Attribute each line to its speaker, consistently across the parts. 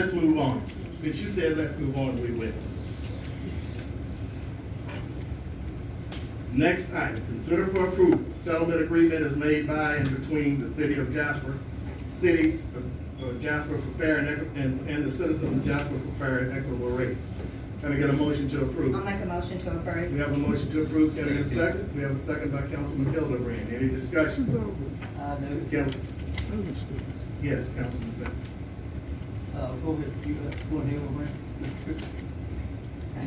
Speaker 1: Let's move on. Since you said let's move on, we will. Next item, consider for approval, settlement agreement is made by and between the city of Jasper, city of- of Jasper for fair and, equi- and, and the citizens of Jasper for fair and equitable rates. Can I get a motion to
Speaker 2: I'll
Speaker 1: approve?
Speaker 2: make a motion to
Speaker 1: We
Speaker 2: approve.
Speaker 1: have a motion to approve, can I get a second? We have a second by Councilman Hildebrand, any discussion?
Speaker 3: I know,
Speaker 1: Council- Yes, Councilman Sanders.
Speaker 3: uh, go ahead, you, uh, go ahead, over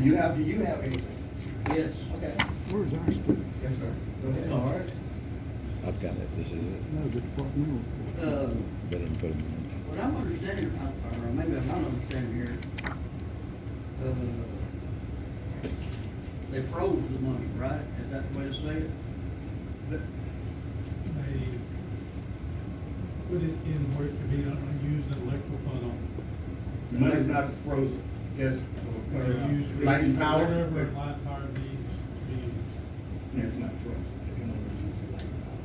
Speaker 1: You have, do you have anything?
Speaker 3: Yes.
Speaker 1: Okay.
Speaker 4: Where's our split?
Speaker 1: Yes, sir. Go ahead.
Speaker 3: All right.
Speaker 5: I've got it, this is it.
Speaker 4: No, the departmental.
Speaker 3: Uh,
Speaker 5: Better than put them in.
Speaker 3: what I'm understanding, I- or maybe I'm not understanding here, uh, they froze the money, right? Is that the way to say it?
Speaker 6: they put it in where it could be an unused electrical fund.
Speaker 1: The money's not frozen, just for clarity. lighting power.
Speaker 6: Whatever light power needs to be,
Speaker 1: It's not frozen. It can only be used for lighting power.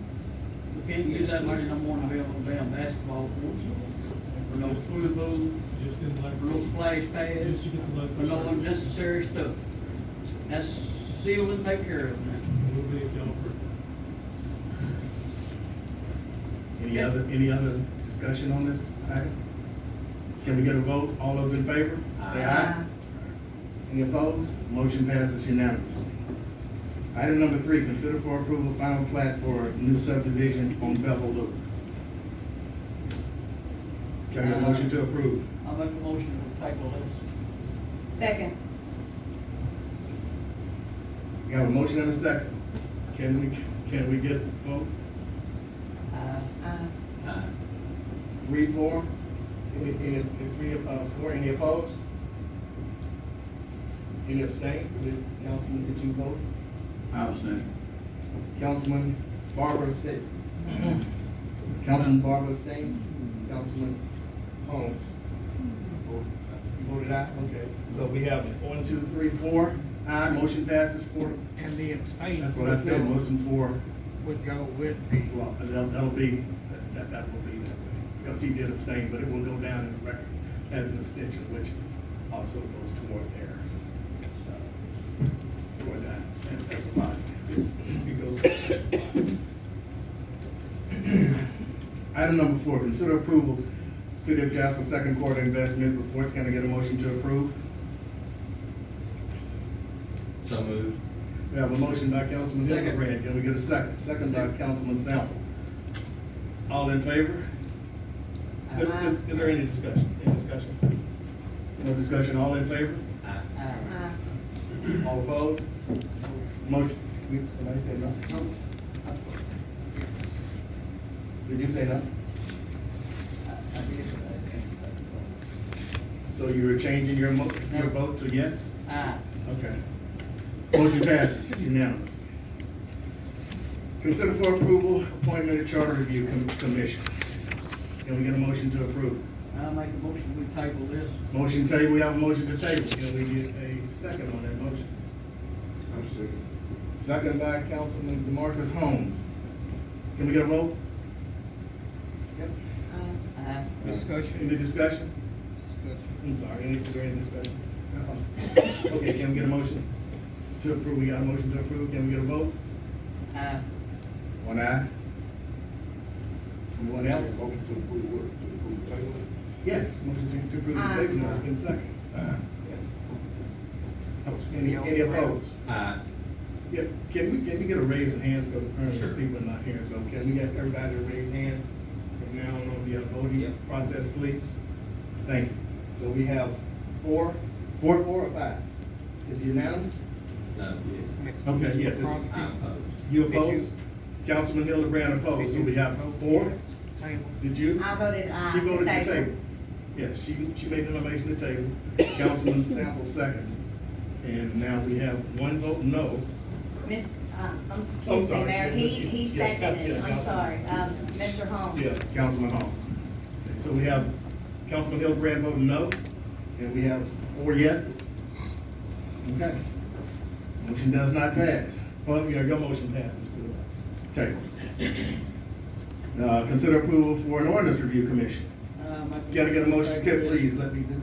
Speaker 3: We can't use that money no more than we have on damn basketball courts, or no swimming pools,
Speaker 6: just
Speaker 3: or
Speaker 6: in
Speaker 3: no
Speaker 6: electrical.
Speaker 3: splash
Speaker 6: Just
Speaker 3: pads,
Speaker 6: to get
Speaker 3: or no
Speaker 6: the local. service.
Speaker 3: unnecessary stuff. That's sealed and take care of now.
Speaker 6: We'll be a developer.
Speaker 1: Any other, any other discussion on this item? Can we get a vote? All those in favor? Say aye.
Speaker 2: Uh,
Speaker 1: Any opposed? Motion passes unanimously. Item number three, consider for approval final plat for new subdivision on Bevel Loop. Can I get a motion to approve?
Speaker 3: I'll make a motion to table this.
Speaker 2: Second.
Speaker 1: We have a motion and a second. Can we, can we get a vote?
Speaker 3: Aye.
Speaker 2: Uh,
Speaker 3: Aye.
Speaker 1: Three, four? Any, any, any three, uh, four, any opposed? Any abstain? Did Councilman, did you vote?
Speaker 3: I was thinking.
Speaker 1: Councilman Barbara abstained. Councilman Barbara abstained, Councilman Holmes. You voted aye, okay. So we have one, two, three, four, aye, motion passes four.
Speaker 7: And the abstain.
Speaker 1: That's what I said,
Speaker 7: would
Speaker 1: motion four,
Speaker 7: go- Would go with the,
Speaker 1: Well, that'll, that'll be, that, that will be that way, because he did abstain, but it will go down in the record as an abstention, which also goes toward their, uh, toward that, that- that's a positive. It goes- that's a positive. Item number four, consider approval, City of Jasper second quarter investment reports, can I get a motion to approve?
Speaker 8: So moved.
Speaker 1: We have a motion by Councilman
Speaker 3: Second.
Speaker 1: Hildebrand, can we get a second? Second by Councilman Sample. All in favor? Is- Is is there any discussion? Any discussion? No discussion, all in favor?
Speaker 8: Aye.
Speaker 3: Aye.
Speaker 2: uh,
Speaker 1: All opposed? Motion, we- somebody said no?
Speaker 3: No.
Speaker 1: Did you say no?
Speaker 3: I- I did, uh,
Speaker 1: So you were changing your mo, your vote to yes?
Speaker 3: Aye.
Speaker 1: Okay. Motion passes unanimously. Consider for approval, appointment of Charter Review Com- Commission. Can we get a motion to approve?
Speaker 3: I'll make a motion, we table this.
Speaker 1: Motion table, we have a motion to table, can we get a second on that motion? I'm second. Second by Councilman Demarcus Holmes. Can we get a vote?
Speaker 2: uh,
Speaker 3: Aye.
Speaker 1: Any
Speaker 7: discussion.
Speaker 1: discussion? I'm sorry, any, is there any discussion? Uh-uh. Okay, can we get a motion to approve, we got a motion to approve, can we get a vote?
Speaker 3: Aye.
Speaker 1: One aye. Anyone else?
Speaker 9: Motion to approve what, to approve the table?
Speaker 1: Yes, motion to- to approve the table, it's been second. Any, any opposed?
Speaker 8: Aye.
Speaker 1: Yeah, can we, can we get a raise of hands, because
Speaker 8: Sure.
Speaker 1: apparently people are not here, so can we get everybody to raise hands from now on the uh, voting
Speaker 8: Yep.
Speaker 1: process, please? Thank you. So we have four, four, four or five? Is it unanimous?
Speaker 8: No, yeah.
Speaker 1: Okay, yes, it's-
Speaker 8: I'm opposed.
Speaker 1: You
Speaker 7: Did you-
Speaker 1: opposed? Councilman Hildebrand opposed, Oh, so we have four,
Speaker 7: Table.
Speaker 1: did you?
Speaker 2: I voted aye.
Speaker 1: She voted to
Speaker 2: Ah, table.
Speaker 1: table. Yes, she, she made the nomination to table, Councilman Sample second. And now we have one vote no,
Speaker 2: Miss, uh, I'm,
Speaker 1: I'm
Speaker 2: excuse me,
Speaker 1: Oh, sorry.
Speaker 2: Mayor, he, he
Speaker 1: Yeah,
Speaker 2: seconded it,
Speaker 1: yeah,
Speaker 2: I'm
Speaker 1: yeah.
Speaker 2: sorry, um, Mr. Holmes.
Speaker 1: Yeah, Councilman Hall. So we have Councilman Hildebrand voting no, and we have four yeses. Okay. Motion does not pass. Well, your, your motion passes too. Okay. Uh, consider approval for an ordinance review commission.
Speaker 3: I'll I'm not.
Speaker 1: Gotta get a motion, okay, please, let me do this.